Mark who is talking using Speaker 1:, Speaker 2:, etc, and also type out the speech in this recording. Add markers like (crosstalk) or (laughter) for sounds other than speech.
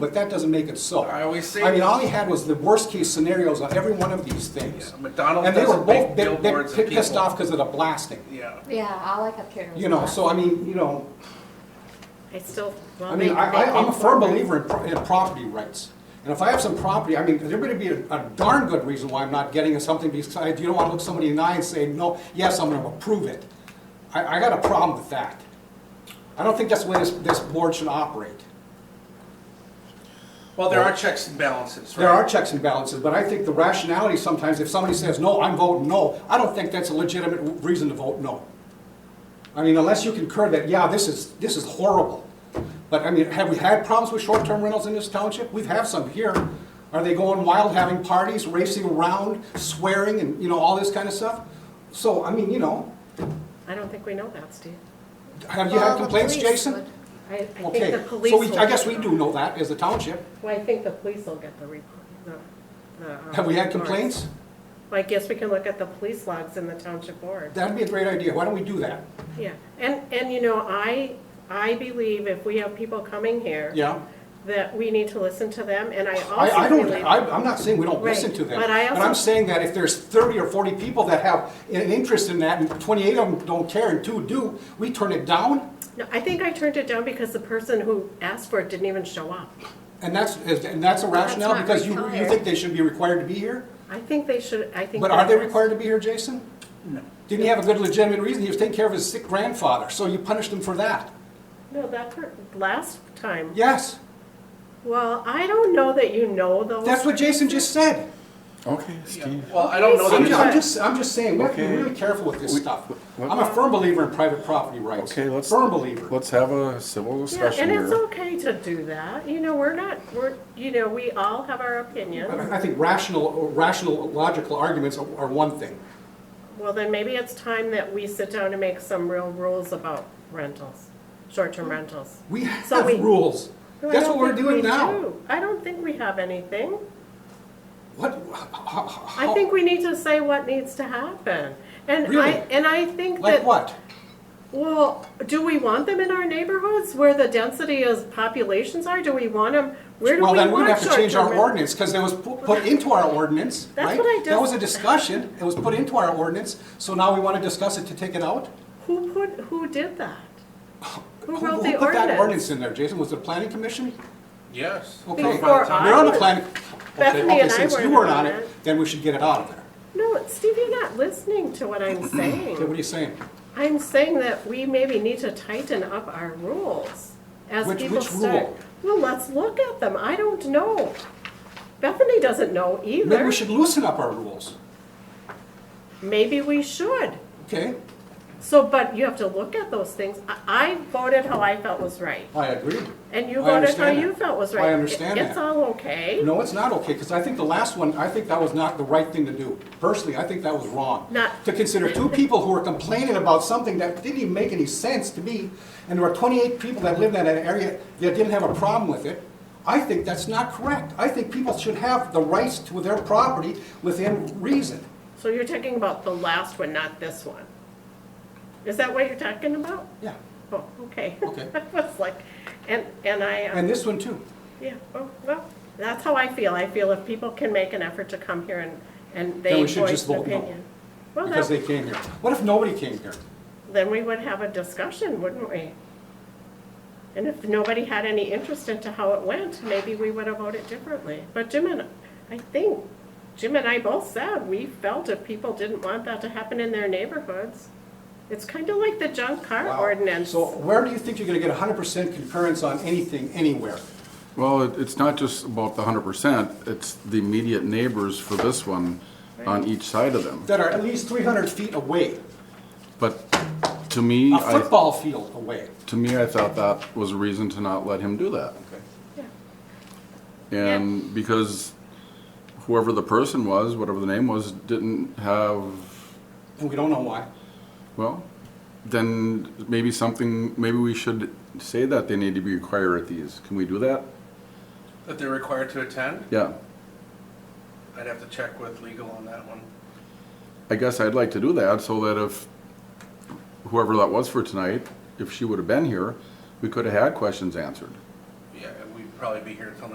Speaker 1: But that doesn't make it so.
Speaker 2: I always say
Speaker 1: I mean,
Speaker 2: this.
Speaker 1: all he had was the worst-case scenarios on every one of these things.
Speaker 2: Yeah, McDonald's
Speaker 1: And they were
Speaker 2: doesn't make
Speaker 1: both bit- bit-
Speaker 2: billboards of
Speaker 1: bit pissed
Speaker 2: people.
Speaker 1: off because of the blasting.
Speaker 2: Yeah.
Speaker 3: Yeah, all I kept hearing was.
Speaker 1: You know, so I mean, you know,
Speaker 4: I still, well,
Speaker 1: I
Speaker 4: they,
Speaker 1: mean, I, I- I'm a firm
Speaker 4: they-
Speaker 1: believer in, pro- in property rights. And if I have some property, I mean, there better be a a darn good reason why I'm not getting something besides, you don't want to look somebody in the eye and say, no, yes, I'm gonna approve it. I, I got a problem with that. I don't think that's the way this, this board should operate.
Speaker 2: Well, there are checks and balances, right?
Speaker 1: There are checks and balances, but I think the rationality sometimes, if somebody says, no, I'm voting no, I don't think that's a legitimate reason to vote no. I mean, unless you concur that, yeah, this is, this is horrible. But I mean, have we had problems with short-term rentals in this township? We've had some here. Are they going wild, having parties, racing around, swearing, and, you know, all this kind of stuff? So, I mean, you know,
Speaker 4: I don't think we know that, Steve.
Speaker 1: have you
Speaker 3: Well,
Speaker 1: had
Speaker 3: the
Speaker 1: complaints,
Speaker 3: police
Speaker 1: Jason?
Speaker 3: would-
Speaker 4: I, I think
Speaker 1: Okay,
Speaker 4: the
Speaker 1: so
Speaker 4: police will.
Speaker 1: we, I guess we do know that as the township.
Speaker 4: Well, I think the police will get the report, the, the. um,
Speaker 1: Have we had
Speaker 4: reports.
Speaker 1: complaints?
Speaker 4: Well, I guess we can look at the police logs in the township board.
Speaker 1: That'd be a great idea. Why don't we do that?
Speaker 4: Yeah, and, and you know, I, I believe if we have people coming here.
Speaker 1: Yeah?
Speaker 4: That we need to listen to them, and I
Speaker 1: I, I
Speaker 4: also
Speaker 1: don't,
Speaker 4: believe.
Speaker 1: I, I'm not saying we don't
Speaker 4: Right,
Speaker 1: listen to them.
Speaker 4: but I also-
Speaker 1: am saying that if there's thirty or forty people that have an interest in that, and twenty-eight of them don't care and two do, we turn it down,
Speaker 4: No, I think I turned it down because the person who asked for it didn't even show up.
Speaker 1: and that's, and that's a rationale,
Speaker 3: not
Speaker 1: because you, you
Speaker 3: required.
Speaker 1: think they should be required to be here?
Speaker 4: I think they should, I think.
Speaker 1: But are they required to be here, Jason?
Speaker 2: No.
Speaker 1: Didn't he have a good legitimate reason? He was taking care of his sick grandfather, so you punished him for that.
Speaker 4: No, that, per- last time.
Speaker 1: Yes,
Speaker 4: Well, I don't know that you know those.
Speaker 1: that's what Jason just said.
Speaker 5: Okay,
Speaker 2: Yeah.
Speaker 5: Steve.
Speaker 2: Well, I don't know that
Speaker 1: I'm
Speaker 2: it's
Speaker 1: ju-
Speaker 4: Sometimes-
Speaker 1: I'm just, I'm just saying, we have to be
Speaker 5: Okay.
Speaker 1: really careful with this
Speaker 5: We-
Speaker 1: stuff.
Speaker 5: what-
Speaker 1: I'm a firm believer in private property rights.
Speaker 5: Okay, let's.
Speaker 1: Firm believer.
Speaker 5: Let's have a civil
Speaker 4: Yeah,
Speaker 5: discussion
Speaker 4: and it's
Speaker 5: here.
Speaker 4: okay to do that. You know, we're not, we're, you know, we all have our opinions.
Speaker 1: I I think rational, rational, logical arguments are are one thing.
Speaker 4: Well, then maybe it's time that we sit down and make some real rules about rentals, short-term rentals.
Speaker 1: We
Speaker 4: So
Speaker 1: have
Speaker 4: we-
Speaker 1: rules.
Speaker 4: No, I
Speaker 1: That's
Speaker 4: don't
Speaker 1: what we're
Speaker 4: think
Speaker 1: doing
Speaker 4: we
Speaker 1: now.
Speaker 4: do. I don't think we have anything.
Speaker 1: What, how- how-
Speaker 4: I think we need to say what needs to happen. And I,
Speaker 1: Really?
Speaker 4: and I think
Speaker 1: Like
Speaker 4: that,
Speaker 1: what?
Speaker 4: well, do we want them in our neighborhoods where the density is, populations are? Do we want them, where do we
Speaker 1: Well,
Speaker 4: want
Speaker 1: then we'd
Speaker 4: short-term
Speaker 1: have to change our
Speaker 4: rentals?
Speaker 1: ordinance, because it was pu- put into our ordinance,
Speaker 4: That's
Speaker 1: right?
Speaker 4: what I
Speaker 1: That
Speaker 4: just-
Speaker 1: was a discussion, it was put into our ordinance, so now we want to discuss it to take it out?
Speaker 4: Who put, who
Speaker 1: (laughs)
Speaker 4: did that? Who wrote
Speaker 1: Who
Speaker 4: the
Speaker 1: put that
Speaker 4: ordinance?
Speaker 1: ordinance in there, Jason? Was it the planning commission?
Speaker 2: Yes.
Speaker 1: Okay,
Speaker 4: Before I
Speaker 1: You're on the
Speaker 4: was-
Speaker 1: planning. Okay,
Speaker 4: Bethany
Speaker 1: okay,
Speaker 4: and I
Speaker 1: since you
Speaker 4: weren't
Speaker 1: weren't
Speaker 4: on
Speaker 1: on
Speaker 4: it.
Speaker 1: it, then we should get it out of there.
Speaker 4: No, Steve, you're not listening to what I'm
Speaker 1: (clears throat) Okay, what are
Speaker 4: saying.
Speaker 1: you saying?
Speaker 4: I'm saying that we maybe need to tighten up our rules as
Speaker 1: Which-
Speaker 4: people
Speaker 1: which
Speaker 4: start.
Speaker 1: rule?
Speaker 4: Well, let's look at them. I don't know. Bethany doesn't know
Speaker 1: Maybe
Speaker 4: either.
Speaker 1: we should loosen up our rules,
Speaker 4: Maybe we should.
Speaker 1: okay?
Speaker 4: So, but you have to look at those things. I I voted how I felt was right,
Speaker 1: I agree.
Speaker 4: and you
Speaker 1: I
Speaker 4: voted how
Speaker 1: understand
Speaker 4: you
Speaker 1: that.
Speaker 4: felt was
Speaker 1: I
Speaker 4: right.
Speaker 1: understand
Speaker 4: It- It's
Speaker 1: that.
Speaker 4: all okay.
Speaker 1: No, it's not okay, because I think the last one, I think that was not the right thing to do. Personally, I think that was wrong.
Speaker 4: Not-
Speaker 1: To consider two people who were complaining about something that didn't even make any sense to me, and there were 28 people that lived in that area that didn't have a problem with it, I think that's not correct. I think people should have the rights to their property within reason.
Speaker 4: So you're talking about the last one, not this one? Is that what you're talking about?
Speaker 1: Yeah,
Speaker 4: Oh, okay. (laughs)
Speaker 1: Okay.
Speaker 4: I was like, and, and I, um,
Speaker 1: and this one too.
Speaker 4: yeah, oh, well, that's how I feel. I feel if people can make an effort to come here and, and
Speaker 1: Then
Speaker 4: they
Speaker 1: we should
Speaker 4: voice
Speaker 1: just
Speaker 4: an
Speaker 1: vote no,
Speaker 4: opinion. Well,
Speaker 1: Because they
Speaker 4: that-
Speaker 1: came here. What if nobody came here?
Speaker 4: then we would have a discussion, wouldn't we? And if nobody had any interest into how it went, maybe we would have voted differently. But Jim and, I think, Jim and I both said, we felt if people didn't want that to happen in their neighborhoods, it's kind of like the junk car
Speaker 1: Wow.
Speaker 4: ordinance.
Speaker 1: So where do you think you're gonna get 100% concurrence on anything, anywhere?
Speaker 5: Well, it- it's not just about the hundred percent, it's the immediate neighbors for this one on each side of them.
Speaker 1: That are at least 300 feet away?
Speaker 5: But to me,
Speaker 1: a
Speaker 5: I,
Speaker 1: football field away.
Speaker 5: to me, I thought that was a reason to not let him do that.
Speaker 4: Yeah.
Speaker 5: And because whoever the person was, whatever the name was, didn't have
Speaker 1: And we don't know why.
Speaker 5: Well, then maybe something, maybe we should say that they need to be required at these. Can we do that?
Speaker 2: That they're required to attend?
Speaker 5: Yeah,
Speaker 2: I'd have to check with legal on that one.
Speaker 5: I guess I'd like to do that so that if whoever that was for tonight, if she would have been here, we could have had questions answered.
Speaker 2: Yeah, and we'd probably be here till